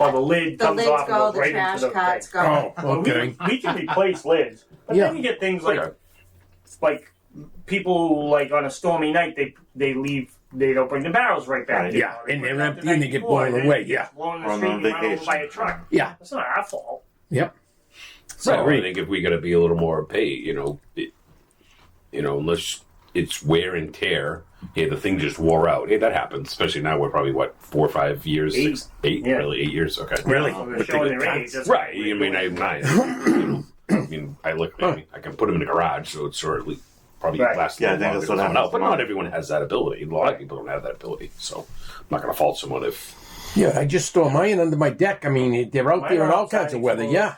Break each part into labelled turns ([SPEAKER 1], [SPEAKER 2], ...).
[SPEAKER 1] Well, the lid
[SPEAKER 2] The
[SPEAKER 1] comes
[SPEAKER 2] lids
[SPEAKER 1] off
[SPEAKER 2] go,
[SPEAKER 1] and goes
[SPEAKER 2] the
[SPEAKER 1] right
[SPEAKER 2] trash
[SPEAKER 1] into the
[SPEAKER 2] cots
[SPEAKER 1] thing.
[SPEAKER 2] go.
[SPEAKER 3] Oh,
[SPEAKER 1] But we-
[SPEAKER 3] okay.
[SPEAKER 1] We, can replace lids, but
[SPEAKER 3] Yeah.
[SPEAKER 1] then you get things like
[SPEAKER 3] Okay.
[SPEAKER 1] like people who, like on a stormy night they they leave they don't bring the barrels right back.
[SPEAKER 4] Right.
[SPEAKER 3] Yeah,
[SPEAKER 1] They
[SPEAKER 3] and
[SPEAKER 1] put
[SPEAKER 3] they're
[SPEAKER 1] it out
[SPEAKER 3] empty
[SPEAKER 1] the
[SPEAKER 3] and
[SPEAKER 1] night
[SPEAKER 3] they get
[SPEAKER 1] before,
[SPEAKER 3] blown
[SPEAKER 1] then it
[SPEAKER 3] away,
[SPEAKER 1] gets
[SPEAKER 3] yeah.
[SPEAKER 1] blown in the
[SPEAKER 4] Or on
[SPEAKER 1] street and run over
[SPEAKER 4] vacation.
[SPEAKER 1] by a truck.
[SPEAKER 3] Yeah.
[SPEAKER 1] It's not our fault.
[SPEAKER 3] Yep.
[SPEAKER 5] So
[SPEAKER 3] Right, right.
[SPEAKER 5] I think if we got to be a little more paid, you know, it, you know, unless it's wear and tear. Hey, the thing just wore out. Hey, that happens. Especially now, we're probably what four or five years,
[SPEAKER 1] Eight.
[SPEAKER 5] six, eight,
[SPEAKER 1] Yeah.
[SPEAKER 5] really eight years. Okay,
[SPEAKER 3] Really?
[SPEAKER 1] So they're
[SPEAKER 4] But they
[SPEAKER 1] showing
[SPEAKER 4] get
[SPEAKER 1] their age.
[SPEAKER 4] taxed.
[SPEAKER 1] that's
[SPEAKER 5] right.
[SPEAKER 1] what we're
[SPEAKER 5] I mean,
[SPEAKER 1] doing.
[SPEAKER 5] I'm nine. you know, I mean, I look. I, mean, I can put them in the garage, so it's sort of like probably
[SPEAKER 1] Right.
[SPEAKER 5] lasts
[SPEAKER 4] Yeah, I
[SPEAKER 5] a little
[SPEAKER 4] think
[SPEAKER 5] longer
[SPEAKER 4] that's what
[SPEAKER 5] than someone
[SPEAKER 4] happens
[SPEAKER 5] else. But
[SPEAKER 4] tomorrow.
[SPEAKER 5] not everyone has that ability. A lot of people don't have that ability, so I'm not going to fault someone if
[SPEAKER 3] Yeah, I just store mine under my deck. I mean, they're out
[SPEAKER 1] Mine
[SPEAKER 3] there in
[SPEAKER 1] are
[SPEAKER 3] all kinds
[SPEAKER 1] outside
[SPEAKER 3] of weather.
[SPEAKER 1] exposed.
[SPEAKER 3] Yeah,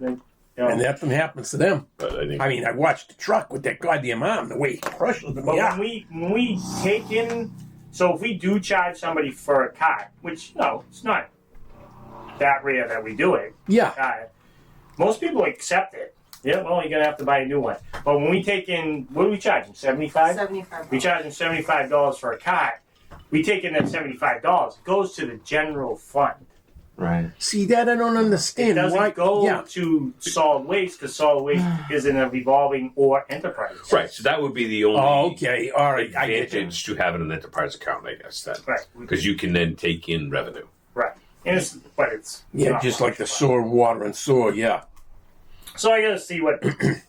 [SPEAKER 1] Then, you know,
[SPEAKER 3] and nothing happens to them.
[SPEAKER 5] But I think
[SPEAKER 3] I mean, I watched the truck with that goddamn arm, the way he crushes them.
[SPEAKER 1] But
[SPEAKER 3] Yeah.
[SPEAKER 1] when we when we take in, so if we do charge somebody for a cot, which no, it's not that rare that we do it.
[SPEAKER 3] Yeah.
[SPEAKER 1] Uh, most people accept it. Yeah, well, you're gonna have to buy a new one. But when we take in, what do we charge them? Seventy five.
[SPEAKER 2] Seventy-five.
[SPEAKER 1] We charge them seventy five dollars for a cot. We take in that seventy five dollars. It goes to the general fund.
[SPEAKER 4] Right.
[SPEAKER 3] See that I don't
[SPEAKER 1] It
[SPEAKER 3] understand.
[SPEAKER 1] doesn't
[SPEAKER 3] Why?
[SPEAKER 1] go
[SPEAKER 3] yeah.
[SPEAKER 1] to solid waste because solid waste isn't a revolving or enterprise.
[SPEAKER 5] right. So that would be the only
[SPEAKER 3] Oh, okay. All right. I get you.
[SPEAKER 5] advantage to having an enterprise account, I guess. Then
[SPEAKER 1] Right.
[SPEAKER 5] because you can then take in revenue.
[SPEAKER 1] Right. And it's, but it's
[SPEAKER 3] Yeah,
[SPEAKER 1] not
[SPEAKER 3] just
[SPEAKER 1] much
[SPEAKER 3] like the
[SPEAKER 1] fun.
[SPEAKER 3] sore water and sore. Yeah.
[SPEAKER 1] So I gotta see what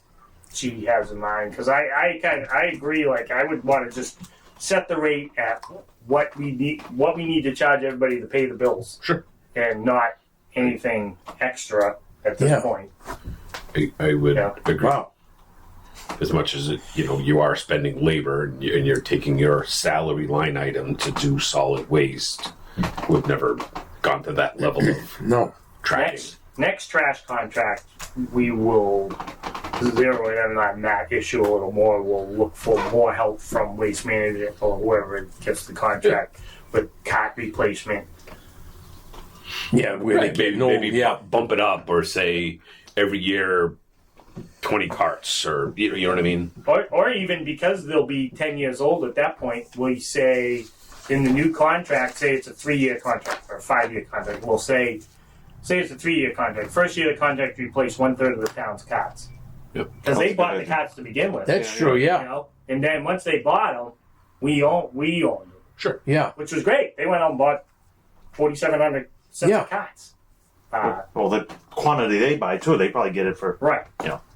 [SPEAKER 1] she has in mind because I I kind I agree. Like I would want to just set the rate at what we need what we need to charge everybody to pay the bills.
[SPEAKER 5] Sure.
[SPEAKER 1] And not anything extra at this
[SPEAKER 3] Yeah.
[SPEAKER 1] point.
[SPEAKER 5] I, I would
[SPEAKER 1] Yeah.
[SPEAKER 5] agree.
[SPEAKER 3] Wow.
[SPEAKER 5] As much as it, you know, you are spending labor and you're, and you're taking your salary line item to do solid waste. We've never gone to that level of
[SPEAKER 3] No.
[SPEAKER 5] tracking.
[SPEAKER 1] Next next trash contract we will zero in on that issue a little more. We'll look for more help from waste management or whoever gets the contract with cot replacement.
[SPEAKER 3] Yeah. Where
[SPEAKER 5] Right,
[SPEAKER 3] they
[SPEAKER 5] maybe
[SPEAKER 3] get no.
[SPEAKER 5] maybe
[SPEAKER 3] yeah.
[SPEAKER 5] bu- bump it up or say every year twenty carts or you know, you know what I mean.
[SPEAKER 1] Or, or even because they'll be 10 years old at that point, we say in the new contract, say it's a three year contract or a five year contract, we'll say, say it's a three year contract. First year of the contract, you replace one third of the town's cots.
[SPEAKER 5] Yep.
[SPEAKER 1] Because they
[SPEAKER 4] Sounds
[SPEAKER 1] bought the
[SPEAKER 4] good.
[SPEAKER 1] cots to begin with.
[SPEAKER 3] That's
[SPEAKER 4] Yeah,
[SPEAKER 3] true.
[SPEAKER 1] You
[SPEAKER 3] Yeah.
[SPEAKER 1] know? And then once they bought them, we own we owned them,
[SPEAKER 5] Sure.
[SPEAKER 3] Yeah.
[SPEAKER 1] which was great. They went out and bought 4,700 sets
[SPEAKER 3] Yeah.
[SPEAKER 1] of cots. Uh,
[SPEAKER 4] Well, the quantity they buy too, they probably get it for.
[SPEAKER 1] right.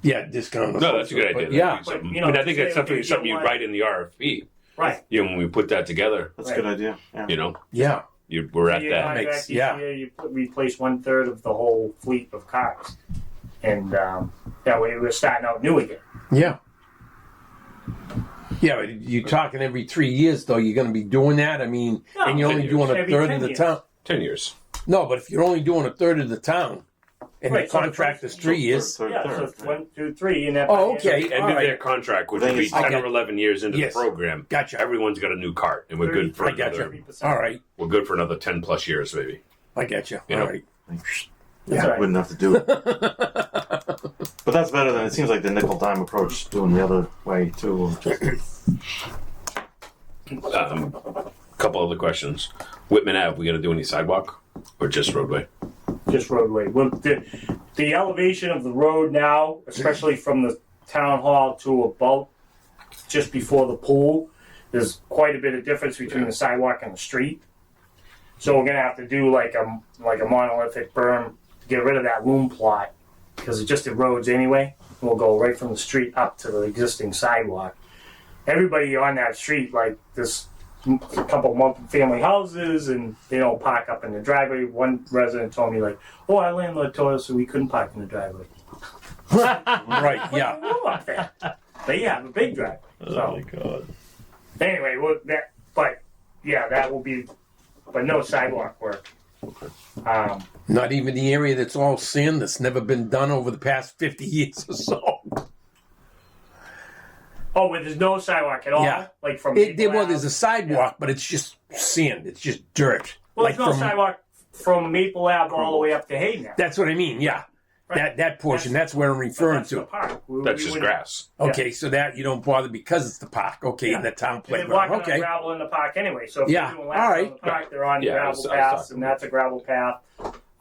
[SPEAKER 3] Yeah. Discount.
[SPEAKER 5] No, that's a good idea.
[SPEAKER 3] But
[SPEAKER 5] That'd
[SPEAKER 3] yeah.
[SPEAKER 5] be something.
[SPEAKER 1] But, you know,
[SPEAKER 5] I mean, I think
[SPEAKER 1] say,
[SPEAKER 5] that's something
[SPEAKER 1] okay, you
[SPEAKER 5] something you
[SPEAKER 1] want-
[SPEAKER 5] write in the RFP.
[SPEAKER 1] Right.
[SPEAKER 5] You know, when we put that together,
[SPEAKER 4] That's a good idea. Yeah.
[SPEAKER 5] you know,
[SPEAKER 3] Yeah.
[SPEAKER 5] you, we're at
[SPEAKER 1] Three-year
[SPEAKER 5] that.
[SPEAKER 1] contract
[SPEAKER 3] Makes-
[SPEAKER 1] each
[SPEAKER 3] yeah.
[SPEAKER 1] year, you put, replace one third of the whole fleet of cars, and um, that way we're starting out new again.
[SPEAKER 3] Yeah. Yeah, but you're talking every three years, though. You're going to be doing that. I mean,
[SPEAKER 1] No,
[SPEAKER 3] and you're only
[SPEAKER 5] ten
[SPEAKER 3] doing a
[SPEAKER 1] years. Every
[SPEAKER 3] third
[SPEAKER 1] ten
[SPEAKER 3] of the
[SPEAKER 1] years.
[SPEAKER 3] town.
[SPEAKER 5] Ten years.
[SPEAKER 3] No, but if you're only doing a third of the town, and
[SPEAKER 1] Right,
[SPEAKER 3] the
[SPEAKER 1] so
[SPEAKER 3] contract
[SPEAKER 1] it's-
[SPEAKER 3] is three years,
[SPEAKER 4] Third,
[SPEAKER 1] yeah, so
[SPEAKER 4] third,
[SPEAKER 1] it's one, two, three, and that.
[SPEAKER 3] Oh,
[SPEAKER 1] by the
[SPEAKER 3] okay.
[SPEAKER 1] end of
[SPEAKER 5] Ended
[SPEAKER 3] All right.
[SPEAKER 5] their contract, which
[SPEAKER 4] Then
[SPEAKER 5] would be
[SPEAKER 4] it's not
[SPEAKER 5] ten or
[SPEAKER 3] good.
[SPEAKER 5] eleven years into
[SPEAKER 3] Yes.
[SPEAKER 5] the program.
[SPEAKER 3] Gotcha.
[SPEAKER 5] Everyone's got a new cart, and we're good for
[SPEAKER 3] I
[SPEAKER 5] another.
[SPEAKER 3] gotcha.
[SPEAKER 1] 30%.
[SPEAKER 3] all right,
[SPEAKER 5] We're good for another ten plus years, maybe.
[SPEAKER 3] I get you.
[SPEAKER 5] Yeah.
[SPEAKER 3] All right,
[SPEAKER 1] That's
[SPEAKER 4] yeah.
[SPEAKER 1] right.
[SPEAKER 4] Wouldn't have to do it. but that's better than it seems like the nickel dime approach doing the other way too.
[SPEAKER 5] Um, couple other questions. Whitman Ave, we going to do any sidewalk or just roadway?
[SPEAKER 1] Just roadway. Well, the, the elevation of the road now, especially from the town hall to about just before the pool, there's quite a bit of difference between the sidewalk and the street. So we're gonna have to do like a like a monolithic berm to get rid of that loom plot because it just erodes anyway. We'll go right from the street up to the existing sidewalk. Everybody on that street, like this m- couple multi-family houses, and they don't park up in the driveway. One resident told me like, "Oh, our landlord told us we couldn't park in the driveway."
[SPEAKER 3] right, yeah,
[SPEAKER 1] Room up there. They have a big driveway. So
[SPEAKER 5] Oh god.
[SPEAKER 1] anyway, well, that but yeah, that will be, but no sidewalk work. Um,
[SPEAKER 3] not even the area that's all sand that's never been done over the past fifty years or so.
[SPEAKER 1] Oh, where there's no sidewalk at all.
[SPEAKER 3] Yeah.
[SPEAKER 1] Like from
[SPEAKER 3] It, there,
[SPEAKER 1] Maple
[SPEAKER 3] well, there's a
[SPEAKER 1] Ave?
[SPEAKER 3] sidewalk, but it's just sand. It's just dirt.
[SPEAKER 1] well,
[SPEAKER 3] like
[SPEAKER 1] there's no
[SPEAKER 3] from-
[SPEAKER 1] sidewalk from Maple Ave all the way up to Hay now.
[SPEAKER 3] That's what I mean. Yeah, that that portion. That's, where I'm
[SPEAKER 1] But
[SPEAKER 3] referring
[SPEAKER 1] that's the
[SPEAKER 3] to.
[SPEAKER 1] park. We-
[SPEAKER 5] That's
[SPEAKER 1] we
[SPEAKER 5] just
[SPEAKER 1] wouldn't-
[SPEAKER 5] grass.
[SPEAKER 3] Okay, so that you don't bother because it's the park. Okay, and the town
[SPEAKER 1] And they're walking
[SPEAKER 3] playground. Okay,
[SPEAKER 1] on gravel in the park anyway. So if
[SPEAKER 3] Yeah.
[SPEAKER 1] you're doing laps
[SPEAKER 3] All
[SPEAKER 1] on
[SPEAKER 3] right.
[SPEAKER 1] the park, they're on
[SPEAKER 5] Yeah, I
[SPEAKER 1] gravel
[SPEAKER 5] was- I was
[SPEAKER 1] paths,
[SPEAKER 5] talking
[SPEAKER 1] and that's a gravel path.